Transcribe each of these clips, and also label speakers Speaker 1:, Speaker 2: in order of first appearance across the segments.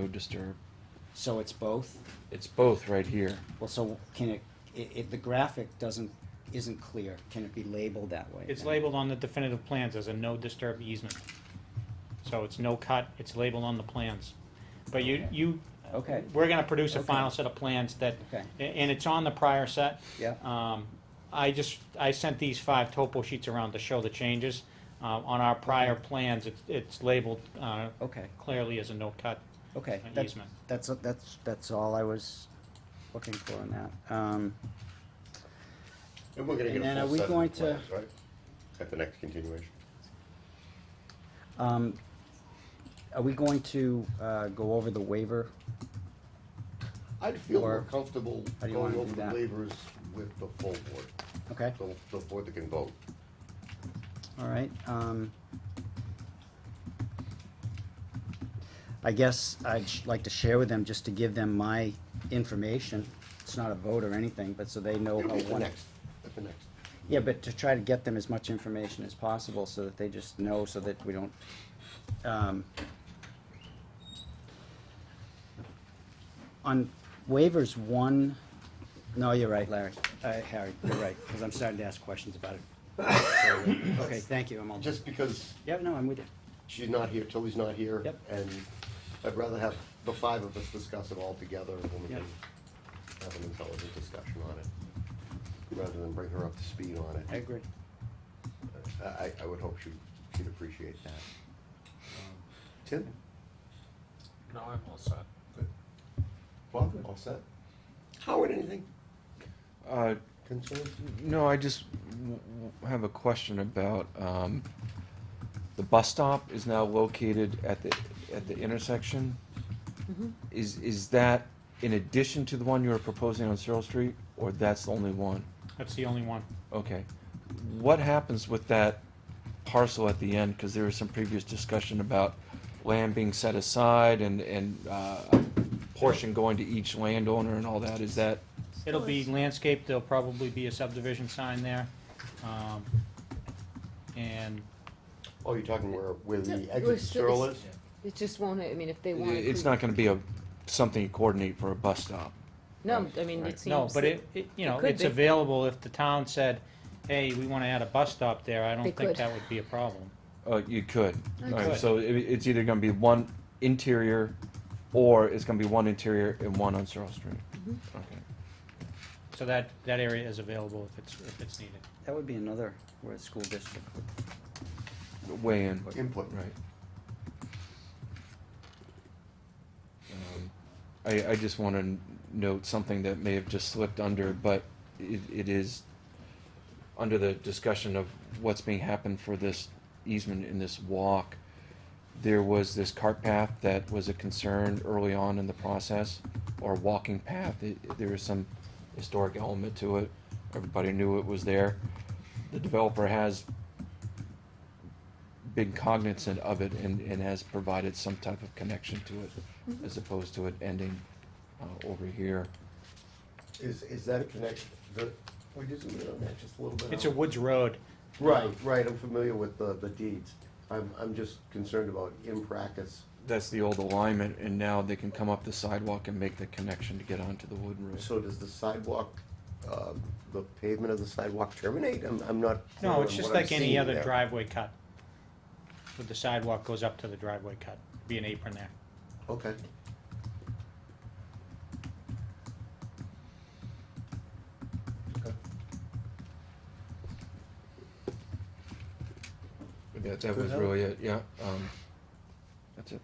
Speaker 1: No disturb.
Speaker 2: So it's both?
Speaker 1: It's both right here.
Speaker 2: Well, so can it, it, it, the graphic doesn't, isn't clear. Can it be labeled that way?
Speaker 3: It's
Speaker 2: then?
Speaker 3: labeled on the definitive plans as a no disturb easement. So it's no cut, it's labeled on the plans. But you, you.
Speaker 2: Okay.
Speaker 3: We're gonna produce a
Speaker 2: Okay.
Speaker 3: final set of plans that,
Speaker 2: Okay.
Speaker 3: a- and it's on the prior set.
Speaker 2: Yeah.
Speaker 3: Um, I just, I sent these five topo sheets around to show the changes. Uh, on our prior plans, it's, it's labeled, uh,
Speaker 2: Okay,
Speaker 3: clearly as a no cut
Speaker 2: okay.
Speaker 3: an
Speaker 2: That-
Speaker 3: easement.
Speaker 2: That's, that's, that's all I was looking for on that. Um,
Speaker 4: And we're gonna
Speaker 2: And
Speaker 4: get
Speaker 2: then are
Speaker 4: a full
Speaker 2: we
Speaker 4: set
Speaker 2: going
Speaker 4: of
Speaker 2: to-
Speaker 4: the plans, right? At the next continuation.
Speaker 2: um, are we going to, uh, go over the waiver?
Speaker 4: I'd feel
Speaker 2: Or-
Speaker 4: more comfortable
Speaker 2: How do you
Speaker 4: going
Speaker 2: wanna
Speaker 4: over
Speaker 2: do
Speaker 4: the
Speaker 2: that?
Speaker 4: waivers with the full board,
Speaker 2: Okay,
Speaker 4: the, the board that can vote.
Speaker 2: all right, um. I guess I'd sh- like to share with them, just to give them my information. It's not a vote or anything, but so they know
Speaker 4: It'll
Speaker 2: how.
Speaker 4: be at the
Speaker 2: what-
Speaker 4: next, at the next.
Speaker 2: Yeah, but to try to get them as much information as possible so that they just know, so that we don't, um, on waivers one, no, you're right, Larry, uh, Harry, you're right, because I'm starting to ask questions about it. Okay, thank you, I'm all done.
Speaker 4: Just because
Speaker 2: Yeah, no, I'm with you.
Speaker 4: she's not here, Tilly's not here.
Speaker 2: Yep.
Speaker 4: And I'd rather have the five of us discuss it all together when we
Speaker 2: Yep.
Speaker 4: can have an intelligent discussion on it. Rather than bring her up to speed on it.
Speaker 2: I agree.
Speaker 4: I, I, I would hope she, she'd appreciate that. Um, Tim?
Speaker 5: No, I'm all set.
Speaker 4: Bob, all set? Howard, anything
Speaker 1: Uh,
Speaker 4: concerns?
Speaker 1: no, I just w- w- have a question about um, the bus stop is now located at the at the intersection. Is is that in addition to the one you were proposing on Searle Street, or that's the only one?
Speaker 3: That's the only one.
Speaker 1: Okay. What happens with that parcel at the end? Because there was some previous discussion about land being set aside and, and uh, a portion going to each landowner and all that. Is that,
Speaker 3: It'll be landscaped, there'll probably be a subdivision sign there. Um, And
Speaker 4: Oh, you're talking where, where
Speaker 6: Yeah,
Speaker 4: the
Speaker 6: it
Speaker 4: exit
Speaker 6: was-
Speaker 4: stroll is?
Speaker 6: It just won't, I mean, if they want.
Speaker 1: it's not going to be a, something you coordinate for a bus stop?
Speaker 6: No, I mean,
Speaker 1: Right.
Speaker 6: it seems.
Speaker 3: No, but it, it- you know,
Speaker 6: could
Speaker 3: it's
Speaker 6: be.
Speaker 3: available if the town said, hey, we want to add a bus stop there, I
Speaker 6: They
Speaker 3: don't think
Speaker 6: could.
Speaker 3: that would be a problem.
Speaker 1: Uh, you could. All right,
Speaker 3: could.
Speaker 1: so it, it's either going to be one interior or it's going to be one interior and one on Searle Street. Okay.
Speaker 3: So that, that area is available if it's, if it's needed.
Speaker 2: That would be another, we're a school district.
Speaker 1: Weigh in.
Speaker 4: Input.
Speaker 1: Right. Um, I, I just want to note something that may have just slipped under, but it, it is under the discussion of what's being happened for this easement in this walk. There was this cart path that was a concern early on in the process, or walking path. It, it- there was some historic element to it. Everybody knew it was there. The developer has been cognizant of it and, and has provided some type of connection to it as opposed to it ending uh, over here.
Speaker 4: Is, is that a connection, the, we just, we on that just a little bit.
Speaker 3: It's a Woods Road.
Speaker 4: Right, right, I'm familiar with the, the deeds. I'm, I'm just concerned about in practice.
Speaker 1: That's the old alignment, and now they can come up the sidewalk and make the connection to get onto the wood road.
Speaker 4: So does the sidewalk, um, the pavement of the sidewalk terminate? I'm, I'm not. clear
Speaker 3: No, it's
Speaker 4: on
Speaker 3: just
Speaker 4: what I'm
Speaker 3: like any
Speaker 4: seeing
Speaker 3: other
Speaker 4: there.
Speaker 3: driveway cut. But the sidewalk goes up to the driveway cut, be an apron there.
Speaker 4: Okay. Okay.
Speaker 1: Yeah, that was really it, yeah. Um, that's it.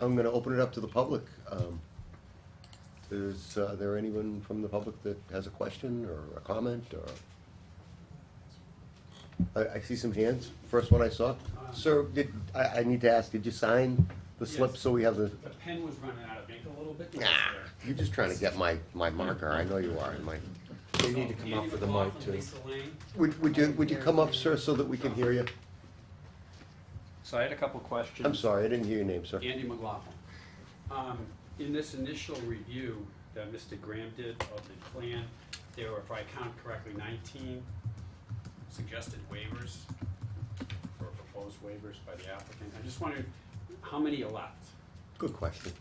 Speaker 4: I'm gonna open it up to the public. Um, Is uh, there anyone from the public that has a question or a comment or? I, I see some hands. First one I saw. Sir, did, I, I need to ask, did you sign the slip
Speaker 7: Yes.
Speaker 4: so we have the, Ah,
Speaker 7: The pen was running out of ink a little bit.
Speaker 4: you're just trying to get my, my marker. I know you are. My,
Speaker 1: They need to come up with the mic too.
Speaker 4: would, would you, would you come up, sir, so that we can hear you?
Speaker 7: So I had a couple questions.
Speaker 4: I'm sorry, I didn't hear your name, sir.
Speaker 7: Andy McLaughlin. Um, in this initial review that Mr. Graham did of the plan, there were, if I count correctly, nineteen suggested waivers or proposed waivers by the applicant. I just wondered how many are left?
Speaker 4: Good question.